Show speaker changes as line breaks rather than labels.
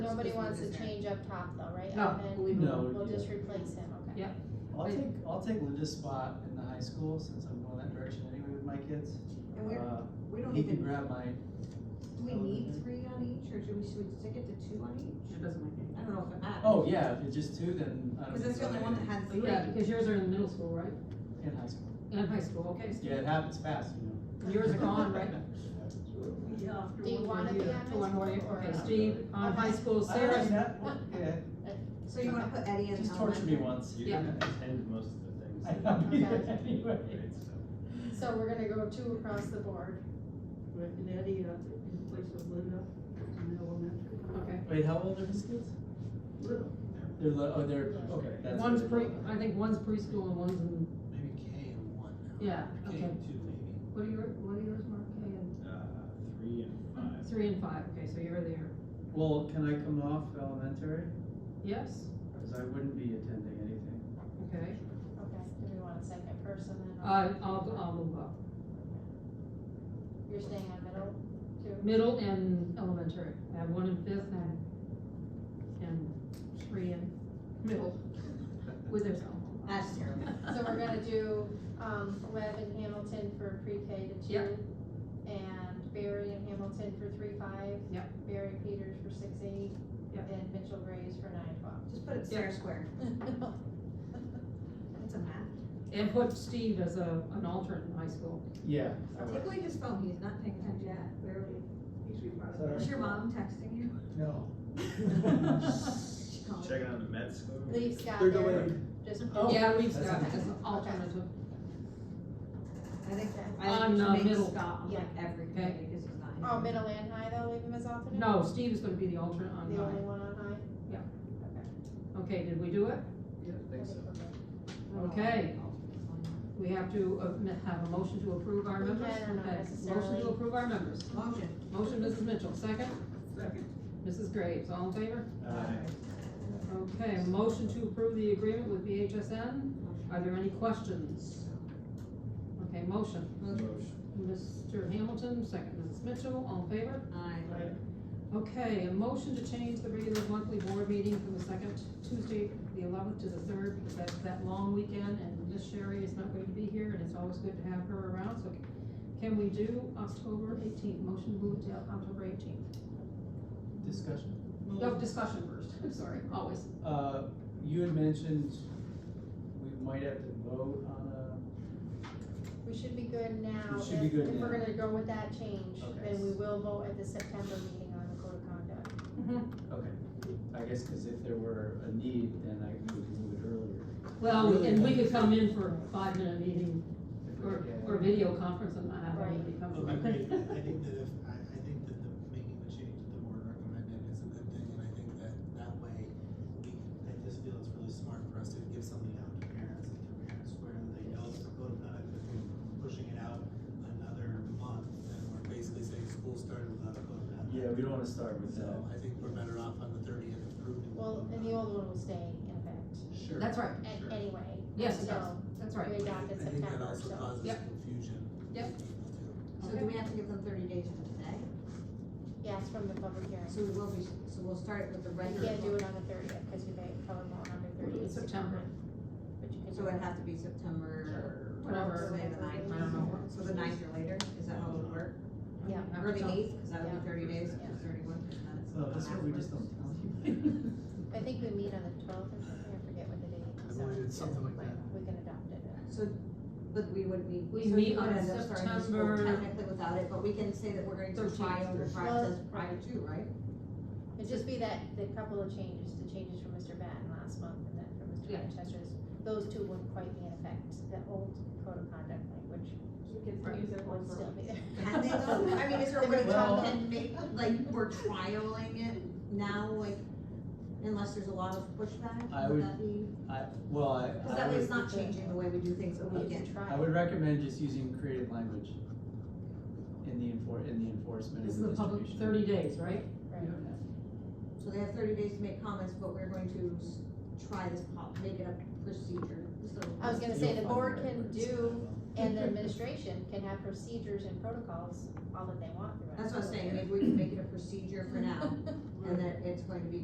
wants to
is there.
change up top though, right?
No,
Up and
we will.
No.
We'll just replace him, okay.
Yeah.
I'll take, I'll take Linda's spot in the high school since I'm going that direction anyway with my kids.
And we're,
Uh,
we don't
He can
even,
grab my,
do we need three on each, or do we, should we stick it to two on each?
It doesn't make
I don't know if it matters.
oh yeah, if it's just two, then I don't.
Cause that's the only
think about
one
it.
that had
any.
three.
Yeah, because yours are in middle school, right?
In high school.
And high school, okay, so
Yeah, it happens fast, you know.
yours are gone, right?
Yeah.
Do you wanna be on
To one more year,
high
okay,
school or?
Steve, on high school,
I don't
Sarah,
know, yeah,
So you wanna put Eddie in elementary?
just torture me once. you
Yeah.
know.
attend most of the things.
I'll be there
Okay.
anyway.
So we're gonna go two across the board.
And Eddie, uh, in place of Linda in elementary.
okay.
Wait, how old are his kids?
Little.
They're, li- oh, they're, okay. that's-
One's pre, I think one's preschool and one's in,
Maybe K and one now.
yeah,
K
okay.
and two maybe.
What are your, what are yours, Mark, K and?
Uh, three and five.
Three and five, okay, so you're there,
Well, can I come off elementary?
yes,
Cause I wouldn't be attending anything.
okay,
Okay, do we want a second person then?
uh, I'll, I'll move up,
You're staying on middle, two?
middle and elementary, I have one in fifth and, and three in middle, with their cell.
That's terrible.
So we're gonna do, um, Webb and Hamilton for pre-K to two.
Yep.
And Barry and Hamilton for three five.
Yep.
Barry Peters for six eight.
Yep.
And Mitchell Graves for nine twelve.
Just put it Sarah Square, that's a math.
And put Steve as a, an alternate in high school,
Yeah. I
Take
would.
away his phone, he's not paying attention, yeah, where are we?
He's
Sorry.
Is your mom texting you?
No.
She called.
Checking on the med school.
Leave Scott
They're
there,
going,
just.
Oh.
yeah, we've
That's
got
okay.
as an alternative,
I think, I
on, uh,
think we should
middle.
make Scott on like every
Okay.
committee, cause he's not.
Oh, middle and high though, leave him as alternate?
No, Steve is gonna be the alternate on
The only
mine,
one on high?
Yeah.
Okay.
okay, did we do it?
Yeah, I think so.
Okay, we have to uh, m- have a motion to approve our
We
members?
can or not
Okay, Motion
necessarily.
to approve our members,
Motion.
motion Mrs. Mitchell, second,
Second.
Mrs. Graves, all in favor?
Uh,
Okay, motion to approve the agreement with BHSN. Are there any questions? Okay, motion.
motion.
Mr. Hamilton, second. Mrs. Mitchell, all in favor?
Aye.
Okay, a motion to change the regular monthly board meeting from the second Tuesday, the eleventh, to the third, because that's that long weekend, and Miss Sherry is not going to be here, and it's always good to have her around, so can we do October eighteenth? Motion moved to October eighteenth.
discussion.
No, discussion first, I'm sorry, always.
Uh, you had mentioned we might have to vote on a
We should be good now.
We should
If-
be good
If we're
now.
gonna go with that change,
Okay.
then we will vote at the September meeting on the code of conduct.
Okay, I guess because if there were a need, then I would move it earlier.
Well, and we could come in for a five-minute meeting
if we
Or,
could get-
or video conference and not have anybody come.
I agree. I think that if, I, I think that the, making the change that the board recommended is a good thing, and I think that that way, we, I just feel it's really smart for us to give something out to parents, and to parents where they know it's a code of conduct, if we're pushing it out another month, then we're basically saying school started without a code of conduct.
Yeah, we don't want to start with
So
that.
I think we're better off on the thirtieth approving.
Well, and the old one will stay in effect,
Sure.
That's right,
a-
Sure.
anyway.
yes, it does,
So,
that's
we
right.
adopt in
I think that
September,
also
so.
causes
Yep.
confusion.
Yep.
for people too.
So do we have to give them thirty days from today?
Yes, from the public hearing.
So we will be, so we'll start with the
You
regular.
can't do it on the thirtieth, because you may cover more on the
In
thirtieth.
September,
But you can
So
do
it'd
it.
have to be September.
Whatever.
Say the ninth.
I don't know.
So the ninth or later, is that how it would work?
Yeah.
Or the eighth, cause that would
Yeah.
be thirty days,
Yeah.
cause thirty-one is not.
So Uh, that's what we just don't tell you.
I think we meet on the twelfth or something, I forget what the date
I
is.
believe
so
it's something like that.
We can adopt it.
So, but we would be.
We
so you
meet
would
on
end up starting the school
September-
Technically without it, but we can say that we're going to try
Thirteenth.
over process prior to, right?
It'd just be that, the couple of changes, the changes from Mr. Batten last month and then from Mr.
Yeah.
Manchester's, those two wouldn't quite be in effect, the old code of conduct language
You can use that
would still be there.
Can they though? I mean, is there a way
Well-
we can make, like, we're trialing it now, like, unless there's a lot of pushback?
I
would
would-
that be?
I, well, I,
Cause
I
that way it's
would,
not changing the way we do things a
We
weekend.
can try.
I would recommend just using creative language in the enfor, in the enforcement
This is
and the
the public, thirty
distribution.
days, right?
Right.
So they have thirty days to make comments, but we're going to s- try this, po- make it a procedure, so.
I was gonna say,
You'll
the
find
board
the right
can
words.
do, and the administration can have procedures and protocols all that they want. throughout
That's what I'm
the
saying,
year.
maybe we can make it a procedure for now, and that it's going to be